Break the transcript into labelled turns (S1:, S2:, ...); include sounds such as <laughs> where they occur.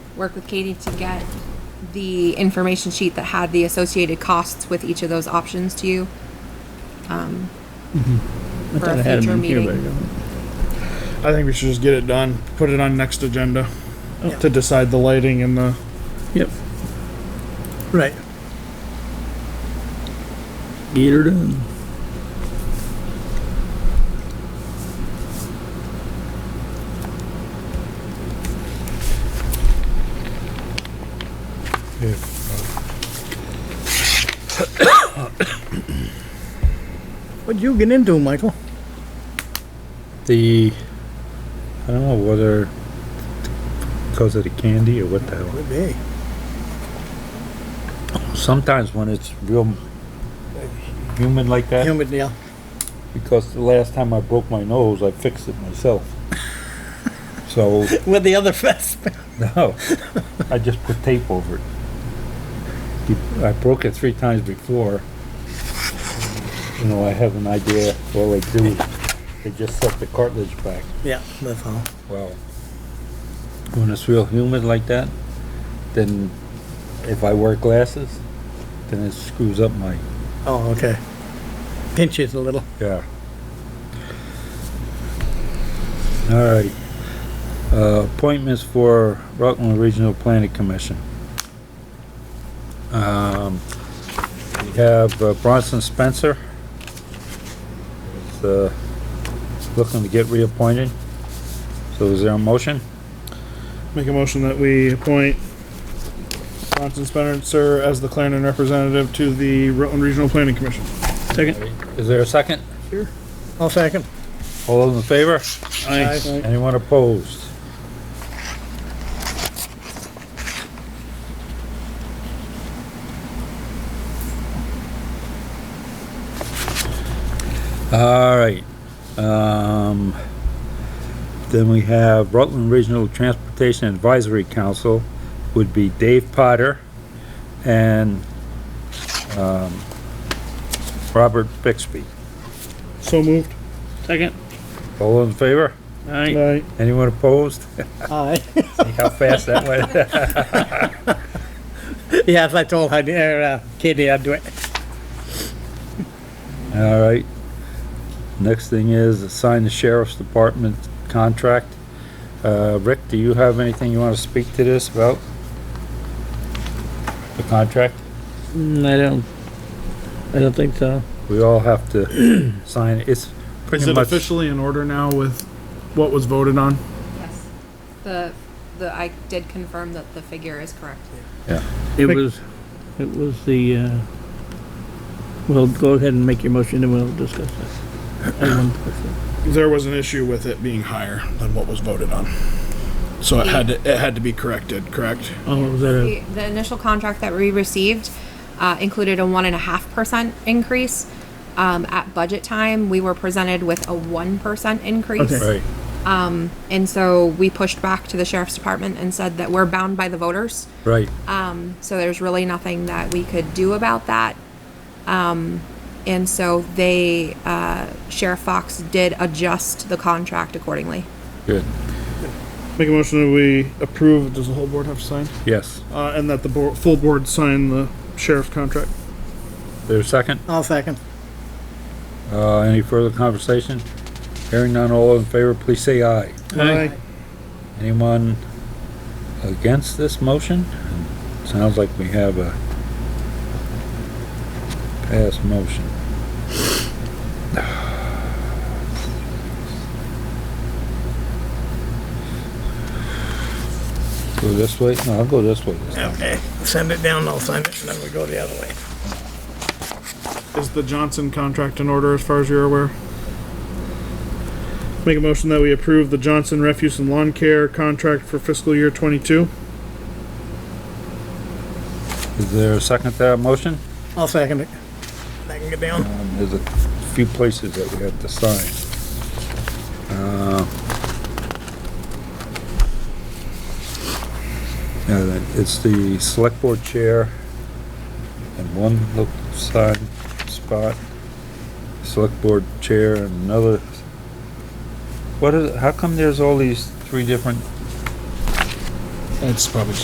S1: work with Katie to get the information sheet that had the associated costs with each of those options to you.
S2: I
S1: For a
S2: thought I had
S1: future
S2: them in here, but I
S1: meeting.
S2: don't.
S3: I think we should just get it done, put it on next agenda to decide the lighting and the,
S2: Yep,
S4: Right.
S2: get her done.
S4: What'd you get into, Michael?
S5: The, I don't know whether, because of the candy or what the hell.
S4: Would be.
S5: Sometimes when it's real humid like that,
S4: Humid, yeah.
S5: because the last time I broke my nose, I fixed it myself. So, <laughs>
S4: With the other <laughs> fest.
S5: no, I just put tape over it. You- I broke it three times before. You know, I have an idea, all they do, they just set the cartilage back.
S4: Yeah, that's all.
S5: Well, when it's real humid like that, then if I wear glasses, then it screws up my.
S4: Oh, okay. Pinches a little.
S5: Yeah. All right. Uh, appointments for Rockland Regional Planning Commission. Um, we have uh, Bronson Spencer. Is, uh, looking to get reappointed. So is there a motion?
S3: make a motion that we appoint Bronson Spencer as the Clarendon representative to the Rutland Regional Planning Commission.
S2: Second,
S5: Is there a second?
S4: I'll second.
S5: All those in favor?
S3: Aye.
S5: Anyone opposed? All right, um, then we have Rutland Regional Transportation Advisory Council would be Dave Potter and, um, Robert Bixby.
S3: So moved.
S2: second,
S5: All in favor?
S2: alright,
S3: Aye.
S5: Anyone opposed?
S4: Aye. <laughs>
S5: <laughs> See how fast that went?
S4: yeah, if I told Heidi, or, uh, Katie I'd do it.
S5: <laughs> All right. Next thing is assign the sheriff's department contract. Uh, Rick, do you have anything you want to speak to this about? The contract?
S2: Mm, I don't, I don't think so.
S5: We all have to sign it. It's
S3: Is
S5: pretty
S3: it
S5: much,
S3: officially in order now with what was voted on?
S1: Yes. The, the, I did confirm that the figure is correct.
S2: It
S3: Quick-
S2: was, it was the, uh, well, go ahead and make your motion and we'll discuss it. I won't discuss it.
S3: There was an issue with it being higher than what was voted on. So it had to, it had to be corrected, correct?
S2: Oh, was that a,
S1: The the initial contract that we received uh, included a one and a half percent increase. Um, At budget time, we were presented with a one percent increase.
S2: Okay.
S5: right,
S1: And so we pushed back to the sheriff's department and said that we're bound by the voters.
S5: right.
S1: Um, so there's really nothing that we could do about that. Um, and so they, uh, Sheriff Fox did adjust the contract accordingly.
S5: Good.
S3: Make a motion that we approve, does the whole board have to sign?
S5: Yes.
S3: Uh, and that the board, full board sign the sheriff's contract.
S5: There's a second?
S4: I'll second.
S5: Uh, any further conversation? Hearing none, all in favor, please say aye.
S3: Aye.
S5: Anyone against this motion? Sounds like we have a pass motion. Go this way? No, I'll go this way. this time.
S4: Okay. Send it down, I'll sign it, and then we go the other way.
S3: Is the Johnson contract in order as far as you're aware? Make a motion that we approve the Johnson Refuse and Lawn Care contract for fiscal year twenty-two.
S5: Is there a second to that motion?
S4: I'll second it. I can get down.
S5: Um, There's a few places that we have to sign. Uh, Yeah, that- it's the select board chair and one look side spot, select board chair and another. What is, how come there's all these three different
S3: That's probably